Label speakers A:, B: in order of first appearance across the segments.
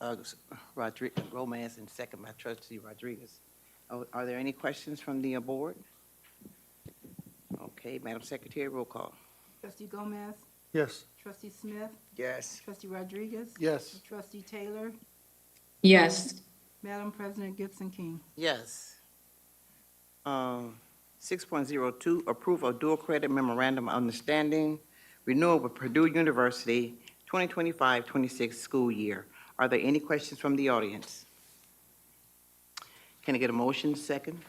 A: uh, Rodriguez, Gomez, and second by trustee Rodriguez. Oh, Are are there any questions from the uh, board? Okay, Madam Secretary, roll call.
B: Trustee Gomez,
C: Yes.
B: trustee Smith,
A: Yes.
B: trustee Rodriguez.
C: Yes.
B: Trustee Taylor,
D: yes,
B: Madam President Gibson King.
A: Yes. Um, 6.02, approve of dual credit memorandum of understanding renewal with Purdue University 2025-26 school year. Are there any questions from the audience? Can I get a motion second?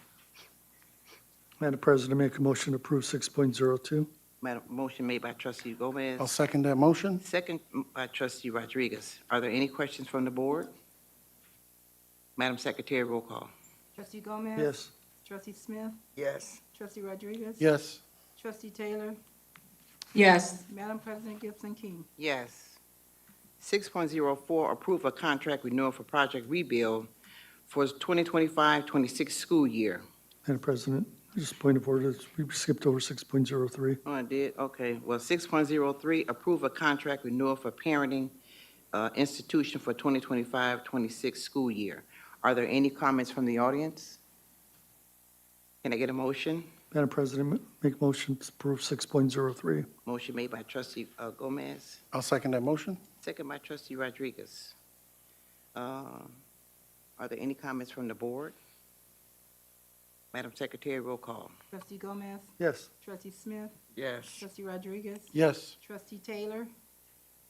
C: Madam President, make a motion to approve 6.02.
A: Madam, motion made by trustee Gomez.
E: I'll second that motion.
A: Second by trustee Rodriguez. Are there any questions from the board? Madam Secretary, roll call.
B: Trustee Gomez.
C: Yes.
B: Trustee Smith,
A: Yes.
B: trustee Rodriguez.
E: Yes,
B: Trustee Taylor,
D: yes,
B: Madam President Gibson King.
A: Yes. 6.04, approve a contract renewal for Project Rebuild for 2025-26 school year.
C: Madam President, just point of order, we skipped over 6.03.
A: Oh, I did, okay. Well, 6.03, approve a contract renewal for Parenting uh, Institution for 2025-26 school year. Are there any comments from the audience? Can I get a motion?
C: Madam President, ma- make motion to approve 6.03.
A: Motion made by trustee uh, Gomez,
E: I'll second that motion.
A: second by trustee Rodriguez. Um, Are there any comments from the board? Madam Secretary, roll call.
B: Trustee Gomez,
C: Yes.
B: trustee Smith,
A: Yes.
B: trustee Rodriguez.
E: Yes,
B: Trustee Taylor,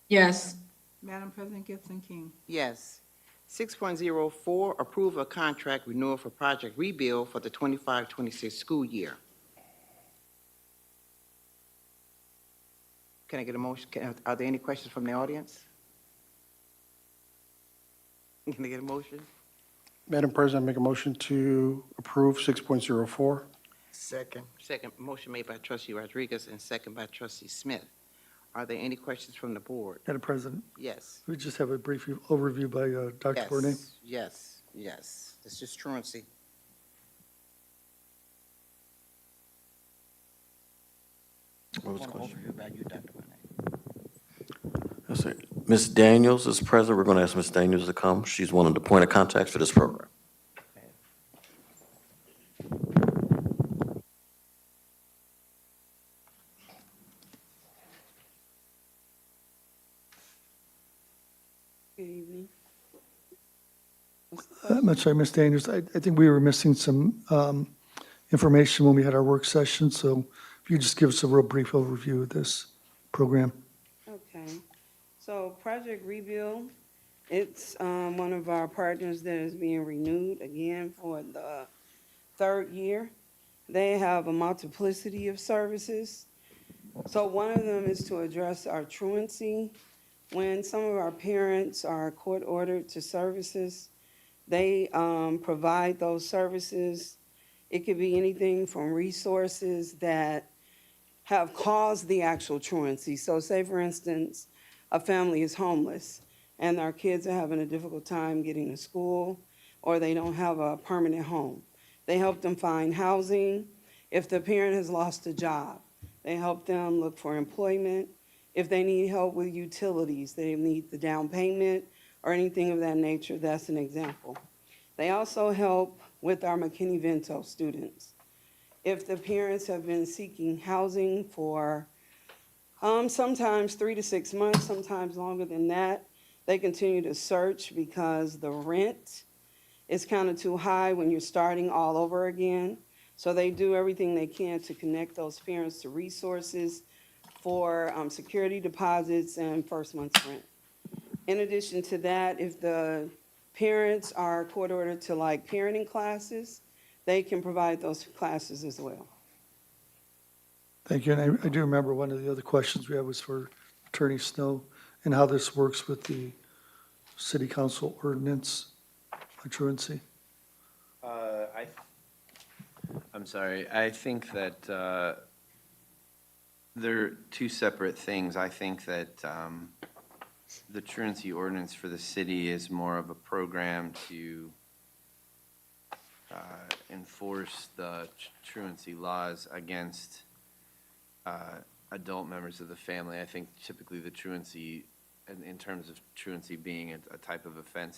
D: yes,
B: Madam President Gibson King.
A: Yes. 6.04, approve a contract renewal for Project Rebuild for the 25-26 school year. Can I get a motion, can- are there any questions from the audience? Can I get a motion?
E: Madam President, make a motion to approve 6.04.
A: Second. Second, motion made by trustee Rodriguez and second by trustee Smith. Are there any questions from the board?
C: Madam President,
A: Yes.
C: we just have a brief overview by uh, Dr. Bournet.
A: Yes, yes, yes. It's just truancy.
F: What was the
A: Want to
F: question?
A: overhear about you, Dr. Bonet.
F: Yes, sir. Ms. Daniels is present. We're going to ask Ms. Daniels to come. She's one of the point of contacts for this program.
G: Good evening.
C: I'm sorry, Ms. Daniels, I, I think we were missing some um, information when we had our work session, so if you just give us a real brief overview of this program.
G: Okay, so Project Rebuild, it's um, one of our partners that is being renewed again for the third year. They have a multiplicity of services. So one of them is to address our truancy. When some of our parents are court-ordered to services, they um, provide those services. It could be anything from resources that have caused the actual truancy. So say, for instance, a family is homeless and our kids are having a difficult time getting to school or they don't have a permanent home. They help them find housing. If the parent has lost a job, they help them look for employment. If they need help with utilities, they need the down payment or anything of that nature, that's an example. They also help with our McKinney-Vento students if the parents have been seeking housing for um, sometimes three to six months, sometimes longer than that. They continue to search because the rent is kind of too high when you're starting all over again. So they do everything they can to connect those parents to resources for um, security deposits and first month's rent. In addition to that, if the parents are court ordered to like parenting classes, they can provide those classes as well.
C: Thank you, and I, I do remember one of the other questions we had was for Attorney Snow and how this works with the city council ordinance on truancy.
H: Uh, I, I'm sorry, I think that uh, they're two separate things. I think that um, the truancy ordinance for the city is more of a program to uh, enforce the tr- truancy laws against uh, adult members of the family. I think typically the truancy, in- in terms of truancy being a a type of offense,